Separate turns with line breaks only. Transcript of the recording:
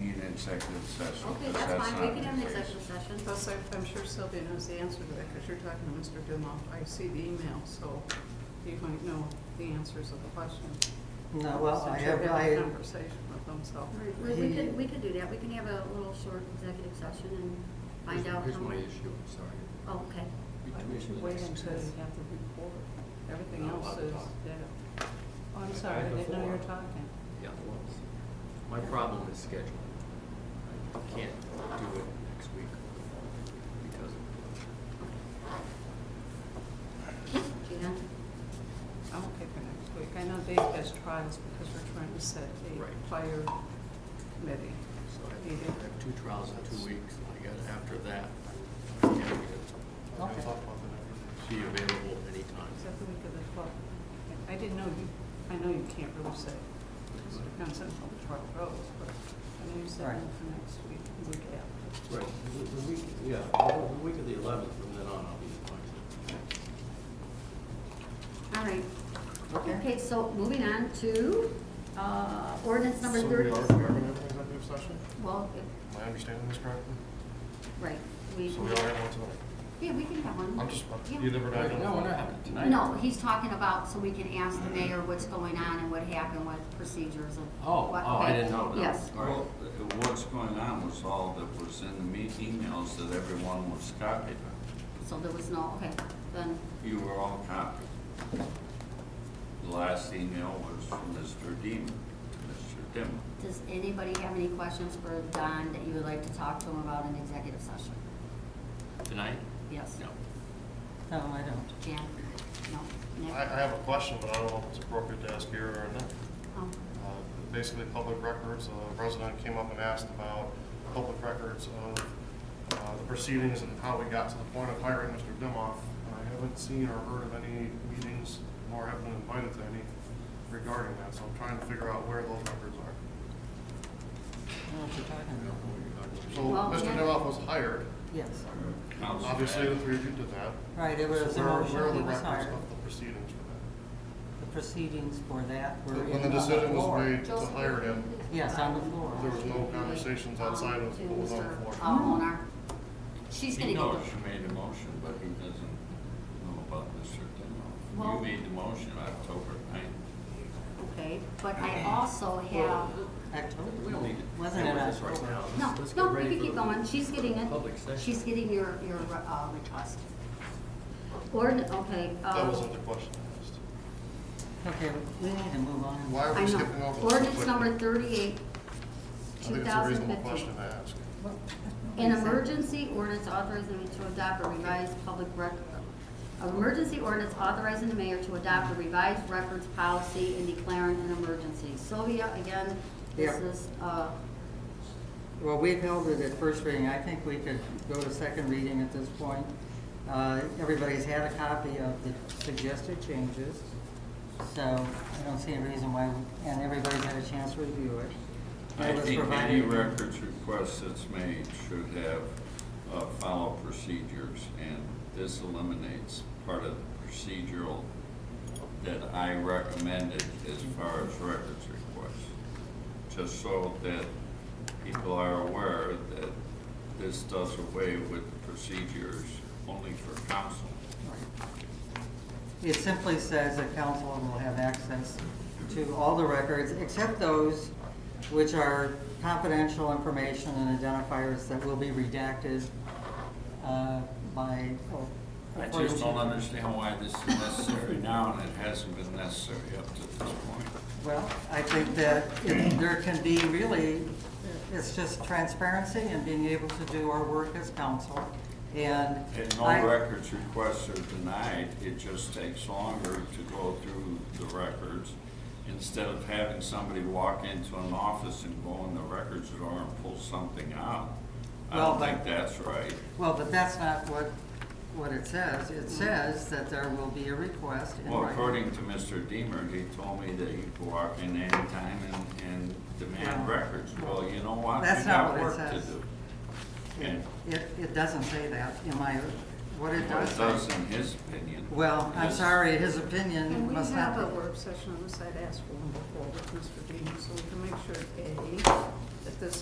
executive session.
Okay,
but
that's fine,
not
we
the
can have an
case.
executive session.
Plus, I- I'm sure Sylvia knows the answer to that, because you're talking to Mr. Dumoff. I see the email, so you might know the answers of the questions.
No, well, I
Since
have,
you're having a
I,
conversation with them, so.
Right, well, we could, we could do that, we can have a little short executive session and find
Here's-
out
Here's
how
my
much.
issue, I'm sorry.
Oh, okay,
We
Why
do
we
it
should
in
wait
the
until
next-
you have the report. Everything
Not
else
allowed
is,
to talk.
yeah. Oh, I'm
I-
sorry, I
I
didn't know you were
before.
talking.
Yeah, it was. My problem is scheduling. I can't do it next week because of,
Jan,
I won't pick her next week. I know Dave has trials because we're trying to set
Right.
a fire committee.
so I
You do.
think I have two trials in two weeks, and I got, after that, I can't get it.
okay.
Be available anytime.
Is that the week of the twelfth? I didn't know you, I know you can't really say, because it depends on how the trial goes, but I know you said
Right.
no for next week, the week after.
Right, the the week, yeah, the the week of the eleventh, from then on, I'll be appointed.
all right.
Okay.
Okay, so moving on to, uh, ordinance number
So we are,
thirty.
we are gonna have an executive session?
Well, if-
Am I understanding this correctly?
right, we.
So we are gonna have one
Yeah, we can have one.
tonight? I'm just,
Yeah.
you never know.
No, we're not having it tonight.
No, he's talking about, so we can ask the mayor what's going on and what happened, what procedures and.
Oh,
what-
oh, I
okay.
didn't know that.
Yes.
All right.
Well, uh, what's going on was all that was in the me- emails that everyone was copied on.
So there was no, okay, then,
You were all copied. The last email was from Mr. Deemer, to Mr. Dimmer.
does anybody have any questions for Don that you would like to talk to him about in executive session?
Tonight?
Yes?
No.
No, I don't.
Jan? No? Nick?
I, I have a question, but I don't know if it's appropriate to ask here or not.
Oh,
Uh, Basically, public records, a resident came up and asked about public records of uh, the proceedings and how we got to the point of hiring Mr. Dimoff. I haven't seen or heard of any meetings, nor have been invited to any regarding that, so I'm trying to figure out where those records are.
I don't know what you're talking about.
So,
Well,
Mr.
yeah.
Dimoff was hired,
Yes,
Council
obviously, the
had-
three of you did that.
right, it was
So
a
where- where are
motion,
the
he was
records
hired.
of the proceedings for
The proceedings for that were
that?
in
When the
on
decision
floor.
was made to
Joseph,
hire him,
please.
Yes, on the floor.
there was no conversations outside of what was on the floor.
To Mr. Owner. She's gonna
He
get
knows
the,
you made a motion, but he doesn't know about Mr. Dimmer.
Well-
You made the motion October ninth.
okay, but I also have,
October.
We don't need to.
Wasn't it
deal with this right
October?
now. Let's-
no,
let's get
no, we
ready
can
for
keep
the-
going, she's getting it.
Public session.
She's getting your, your, uh, request. Ord, okay, uh.
That wasn't the question I asked.
Okay, we need to move on.
Why are
I
we
know.
skipping over? this
Ordinance
quickly?
number thirty-eight,
I
two
think it's a
thousand
reasonable question
fifteen.
to ask.
An emergency ordinance authorizing me to adopt a revised public record. An emergency ordinance authorizing the mayor to adopt a revised records policy and declaring an emergency. Sylvia, again, this
Yeah.
is, uh,
Well, we've held it at first reading. I think we could go to second reading at this point. Uh, Everybody's had a copy of the suggested changes, so I don't see a reason why, we- and everybody's had a chance to review it.
I
It was
think any
provided-
records request that's made should have uh, follow procedures, and this eliminates part of the procedural that I recommended as far as records requests. Just so that people are aware that this does away with procedures only for council.
It simply says that council will have access to all the records except those which are confidential information and identifiers that will be redacted uh, by.
I just don't understand why this is necessary now, and it hasn't been necessary up to this point.
Well, I think that if there can be really, it's just transparency and being able to do our work as council and.
And no
I-
records requests are denied, it just takes longer to go through the records. Instead of having somebody walk into an office and go in the records drawer and pull something out. I
Well,
don't
but-
think that's right.
Well, but that's not what, what it says. It says that there will be a request in
Well,
writing.
according to Mr. Deemer, he told me that he could walk in anytime and, and demand
Well,
records. Well, you know what?
that's
We
not
got
what it
work to
says.
do.
It,
And
it doesn't say that in my, what it
what
does
it does
say.
in his opinion.
Well, I'm
is-
sorry, his
And
opinion
we
must
have
not
a
be.
work session on this, I'd ask for one before with Mr. Dean, so we can make sure, A, that this